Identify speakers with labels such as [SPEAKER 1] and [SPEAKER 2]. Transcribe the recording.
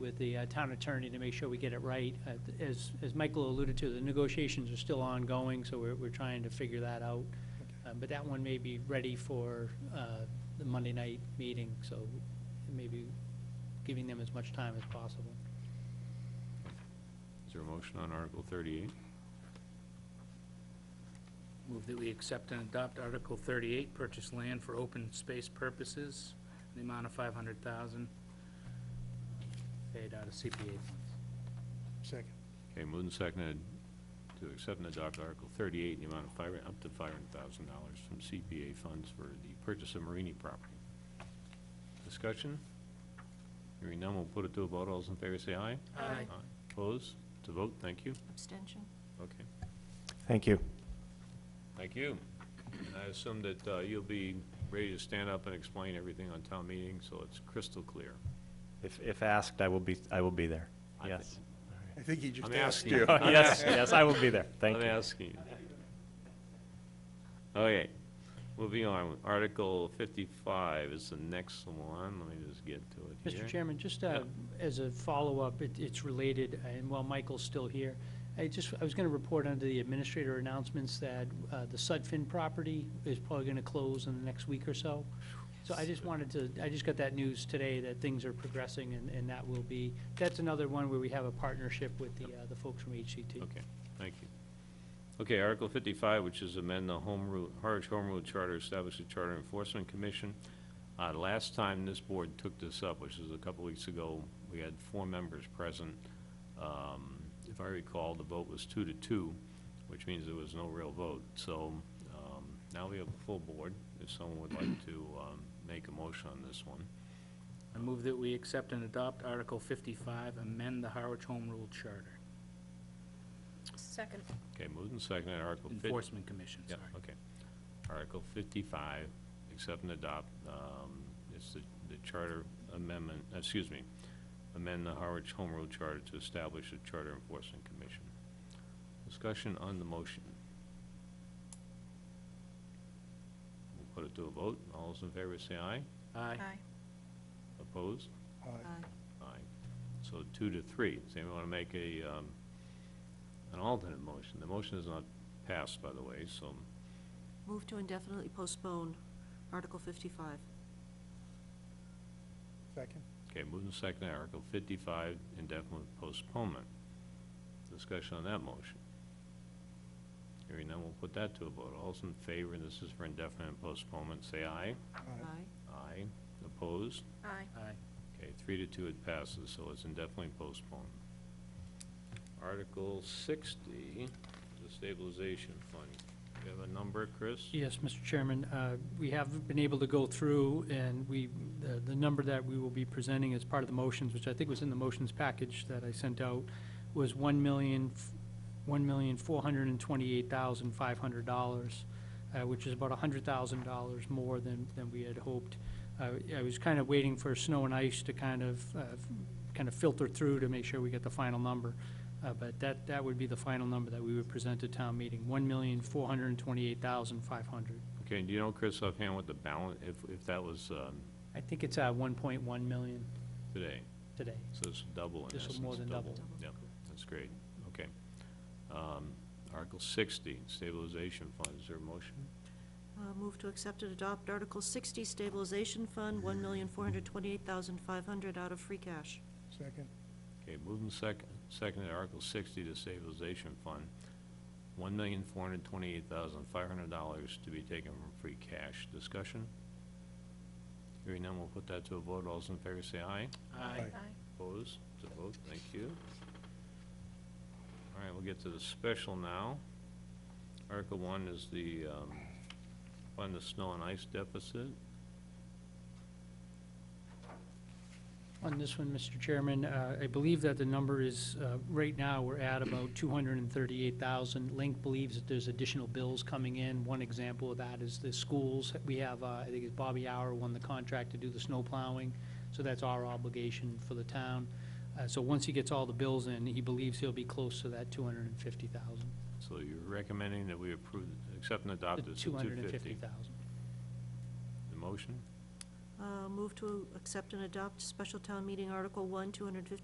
[SPEAKER 1] with the uh, town attorney to make sure we get it right. Uh, As, as Michael alluded to, the negotiations are still ongoing, so we're, we're trying to figure that out. Uh, But that one may be ready for uh, the Monday night meeting, so maybe giving them as much time as possible.
[SPEAKER 2] Is there a motion on Article 38?
[SPEAKER 3] Move that we accept and adopt Article 38, purchase land for open space purposes, in the amount of 500,000, paid out of CPA funds.
[SPEAKER 4] Second.
[SPEAKER 2] Okay, moved and seconded to accept and adopt Article 38 in the amount of five, up to $500,000 from CPA funds for the purchase of Marini property. Discussion? Hearing none, we'll put it to a vote. All those in favor say aye.
[SPEAKER 3] Aye.
[SPEAKER 2] Opposed? To vote, thank you.
[SPEAKER 5] Abstention?
[SPEAKER 2] Okay,
[SPEAKER 6] Thank you.
[SPEAKER 2] thank you. And I assume that uh, you'll be ready to stand up and explain everything on town meeting, so it's crystal clear.
[SPEAKER 6] If, if asked, I will be, I will be there.
[SPEAKER 2] I thi-
[SPEAKER 6] Yes.
[SPEAKER 4] I think he just
[SPEAKER 2] I'm
[SPEAKER 4] asked
[SPEAKER 2] asking.
[SPEAKER 4] you.
[SPEAKER 6] Yes, yes, I will be there. Thank
[SPEAKER 2] I'm
[SPEAKER 6] you.
[SPEAKER 2] asking you. Okay, moving on, Article fifty-five is the next one, let me just get to it here.
[SPEAKER 1] Mr. Chairman, just uh, as a follow-up, it- it's related, and while Michael's still here, I just, I was going to report under the administrator announcements that uh, the Sudfin property is probably going to close in the next week or so. So I just wanted to, I just got that news today that things are progressing, and and that will be, that's another one where we have a partnership with the uh, the folks from HCT.
[SPEAKER 2] Okay, thank you. Okay, Article fifty-five, which is amend the Home Rule, Harwich Home Rule Charter, establish a Charter Enforcement Commission. Uh, last time this board took this up, which was a couple weeks ago, we had four members present. Um, if I recall, the vote was two to two, which means there was no real vote. So, um, now we have a full board, if someone would like to, um, make a motion on this one.
[SPEAKER 3] I move that we accept and adopt Article 55, amend the Harwich Home Rule Charter,
[SPEAKER 5] Second.
[SPEAKER 2] Okay, moved and seconded, Article fifty.
[SPEAKER 3] Enforcement Commission,
[SPEAKER 2] Oh, Yeah,
[SPEAKER 3] sorry.
[SPEAKER 2] okay. Article fifty-five, accept and adopt, um, it's the, the charter amendment, excuse me, amend the Harwich Home Rule Charter to establish a charter enforcement commission. Discussion on the motion. We'll put it to a vote. All those in favor say aye.
[SPEAKER 3] Aye.
[SPEAKER 2] Opposed?
[SPEAKER 4] Aye.
[SPEAKER 2] Aye. So two to three. Does anyone want to make a, um, an alternate motion? The motion is not passed, by the way, so
[SPEAKER 5] Move to indefinitely postpone Article 55.
[SPEAKER 4] Second.
[SPEAKER 2] Okay, moving second, Article 55, indefinite postponement. Discussion on that motion. Hearing none, we'll put that to a vote. All's in favor, and this is for indefinite postponement, say aye.
[SPEAKER 4] Aye.
[SPEAKER 5] Aye.
[SPEAKER 2] Aye. Opposed?
[SPEAKER 5] Aye.
[SPEAKER 3] Aye.
[SPEAKER 2] Okay, three to two it passes, so it's indefinitely postponed. Article 60, the stabilization fund. You have a number, Chris?
[SPEAKER 1] Yes, Mr. Chairman, uh, we have been able to go through, and we, the- the number that we will be presenting as part of the motions, which I think was in the motions package that I sent out, was one million, one million four hundred and twenty-eight thousand five hundred dollars, uh, which is about a hundred thousand dollars more than, than we had hoped. Uh, I was kind of waiting for snow and ice to kind of, uh, kind of filter through to make sure we get the final number. Uh, But that, that would be the final number that we would present at town meeting, one million, four hundred and twenty-eight thousand, five hundred.
[SPEAKER 2] Okay, do you know, Chris, offhand what the balance, if, if that was um,
[SPEAKER 1] I think it's at one point one million
[SPEAKER 2] today?
[SPEAKER 1] today.
[SPEAKER 2] So it's double in
[SPEAKER 1] This will
[SPEAKER 2] essence.
[SPEAKER 1] more than double.
[SPEAKER 2] Yeah, that's great, okay. Um, Article 60, stabilization fund, is there a motion?
[SPEAKER 5] Uh, Move to accept and adopt Article 60 Stabilization Fund, 1428500 out of free cash.
[SPEAKER 4] Second.
[SPEAKER 2] Okay, moving second, second to Article 60, the stabilization fund, $1,428,500 to be taken from free cash. Discussion? Hearing none, we'll put that to a vote. All those in favor say aye.
[SPEAKER 3] Aye.
[SPEAKER 2] Opposed? To vote, thank you. All right, we'll get to the special now. Article one is the, um, fund the snow and ice deficit.
[SPEAKER 1] On this one, Mr. Chairman, uh, I believe that the number is, uh, right now, we're at about two hundred and thirty-eight thousand. Link believes that there's additional bills coming in. One example of that is the schools. We have, uh, I think it's Bobby Hour won the contract to do the snow plowing, so that's our obligation for the town. Uh, So once he gets all the bills in, he believes he'll be close to that two hundred and fifty thousand.
[SPEAKER 2] So you're recommending that we approve, accept and adopt this at
[SPEAKER 1] Two hundred and fifty
[SPEAKER 2] 250.
[SPEAKER 1] thousand.
[SPEAKER 2] The motion?
[SPEAKER 5] Uh, Move to accept and adopt Special Town Meeting Article 1,